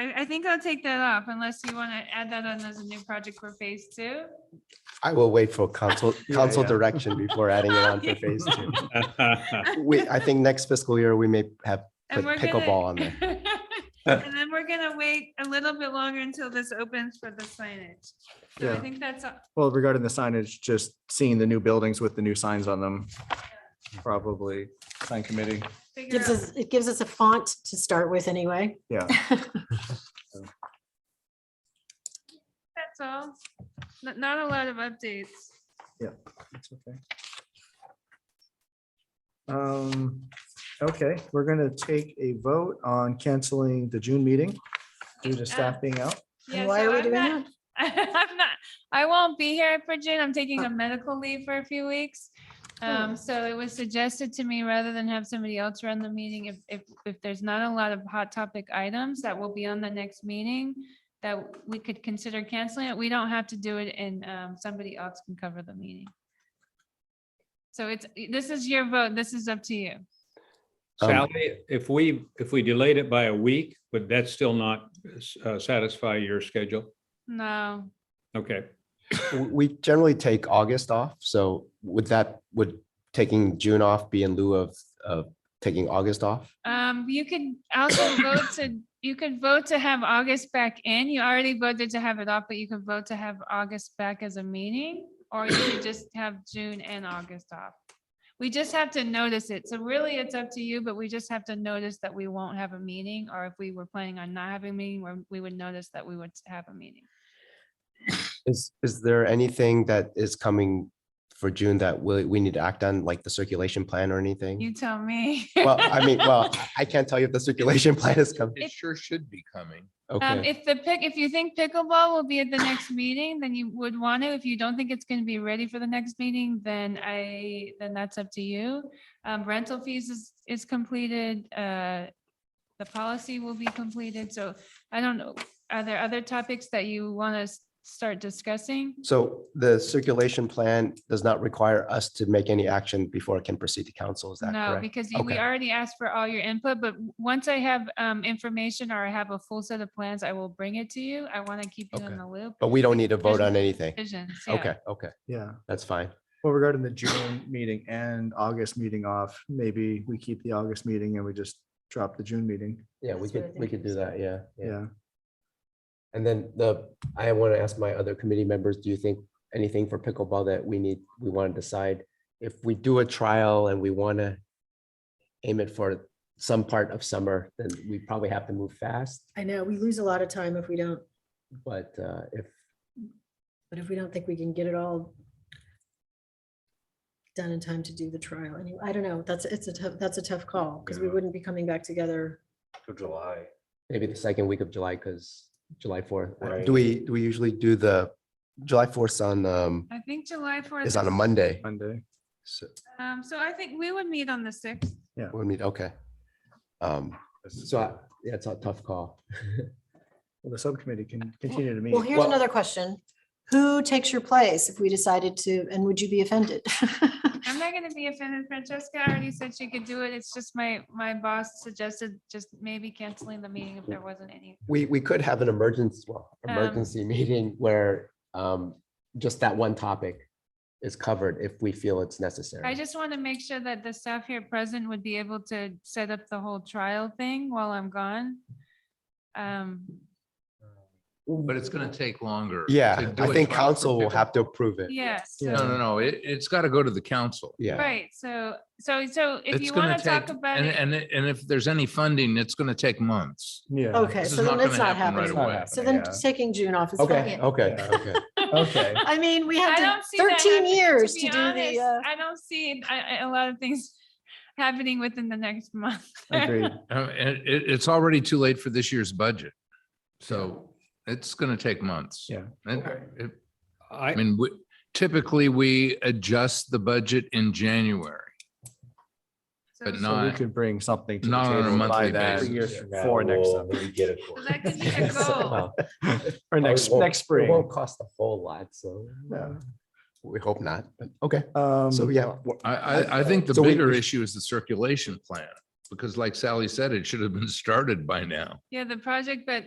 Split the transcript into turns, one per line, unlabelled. I, I think I'll take that off unless you want to add that on as a new project for phase two.
I will wait for council,
Yeah,
council
yeah.
direction before adding it on for phase two. We, I think next fiscal year, we may have,
And
Put
we're gonna-
pickleball on there.
And then we're gonna wait a little bit longer until this opens for the signage. So I
Yeah.
think that's, a-
Well, regarding the signage, just seeing the new buildings with the new signs on them, probably sign committee.
figure
Gives
out.
us, it gives us a font to start with anyway.
Yeah,
that's all. Not, not a lot of updates.
it's okay. Um, okay, we're gonna take a vote on canceling the June meeting due to staff being out.
Yeah,
And why
so
are we
I'm
doing
not-
that?
I'm not, I won't be here for June. I'm taking a medical leave for a few weeks. Um, so it was suggested to me rather than have somebody else run the meeting, if, if, if there's not a lot of hot topic items that will be on the next meeting, that we could consider canceling it. We don't have to do it and, um, somebody else can cover the meeting. So it's, this is your vote. This is up to you.
Um,
Sally, if we, if we delayed it by a week, would that still not uh, satisfy your schedule?
No,
Okay,
w- we generally take August off, so would that, would taking June off be in lieu of, of taking August off?
Um, you could also vote to, you could vote to have August back in. You already voted to have it off, but you could vote to have August back as a meeting. Or you could just have June and August off. We just have to notice it. So really, it's up to you, but we just have to notice that we won't have a meeting. Or if we were planning on not having a meeting, we're- we would notice that we would have a meeting.
Is, is there anything that is coming for June that we, we need to act on, like the circulation plan or anything?
You tell me.
Well, I mean, well, I can't tell you if the circulation plan is coming.
It sure should be coming.
Um,
Okay,
if the pick, if you think pickleball will be at the next meeting, then you would want to. If you don't think it's going to be ready for the next meeting, then I, then that's up to you. Um, rental fees is, is completed, uh, the policy will be completed. So I don't know, are there other topics that you want to start discussing?
so the circulation plan does not require us to make any action before it can proceed to council, is that
No,
correct?
because you- we
Okay.
already asked for all your input, but w- once I have, um, information or I have a full set of plans, I will bring it to you. I want to keep you
Okay.
in the loop.
But we don't need to
There's
vote on
no
anything.
Visions, yeah.
Okay, okay,
Yeah,
that's fine.
well, regarding the June meeting and August meeting off, maybe we keep the August meeting and we just drop the June meeting.
Yeah, we
That's what I
could, we
think
could
it
do
was.
that, yeah.
Yeah,
And then the, I want to ask my other committee members, do you think anything for pickleball that we need, we want to decide? If we do a trial and we want to aim it for some part of summer, then we probably have to move fast.
I know, we lose a lot of time if we don't,
But uh, if,
but if we don't think we can get it all done in time to do the trial, anyway, I don't know, that's, it's a tough, that's a tough call, because we
Yeah.
wouldn't be coming back together.
for July.
maybe the second week of July, because July fourth.
Right.
Do we, do we usually do the July fourth on, um,
I think July fourth.
is on a Monday?
Monday.
So
Um, so I think we would meet on the sixth.
we meet, okay. Um, So I- yeah, it's a tough call.
Well, the subcommittee can continue to meet.
Well, here's
Well-
another question. Who takes your place if we decided to, and would you be offended?
I'm not gonna be offended. Francesca already said she could do it. It's just my, my boss suggested just maybe canceling the meeting if there wasn't any.
We, we could have an emergency, well,
Um,
emergency meeting where um, just that one topic is covered if we feel it's necessary.
I just want to make sure that the staff here present would be able to set up the whole trial thing while I'm gone. Um,
But it's gonna take longer. to
Yeah,
do
I
a
think
trial for
council will
pickle-
have to approve it.
yes,
Yeah.
No, no, no, it, it's gotta go to the council.
Yeah,
right. So, so, so if
It's
you
gonna
want to talk
take-
about
and-
it,
And, it- and if there's any funding, it's gonna take months.
Yeah.
Okay,
This
so
is
then
not
it's
gonna
not
happen right
happening.
away.
So then
Yeah.
taking June off is
okay, Oh.
fine.
okay,
Yeah.
okay.
Okay.
I mean, we
I
had
don't see that
thirteen
happening,
years
be
to do the,
honest.
uh,
I don't see I- I- a lot of things happening within the next month.
Agreed.
Uh, And it, it's already too late for this year's budget. So it's gonna take months.
Yeah.
And
Okay.
it- I
I,
mean, we- typically, we adjust the budget in January.
So-
But
so
not-
So we
Right.
could bring something to the
Not on a
table by
monthly
that
basis.
years from For next summer.
So that could be a goal.
Well,
Or
it
next,
won't-
next
It
spring.
won't cost a whole lot, so.
Yeah.
We hope not, but okay,
Um,
so yeah. wha-
I, I, I think the
So we-
bigger issue is the circulation plan, because like Sally said, it should have been started by now.
Yeah, the project, but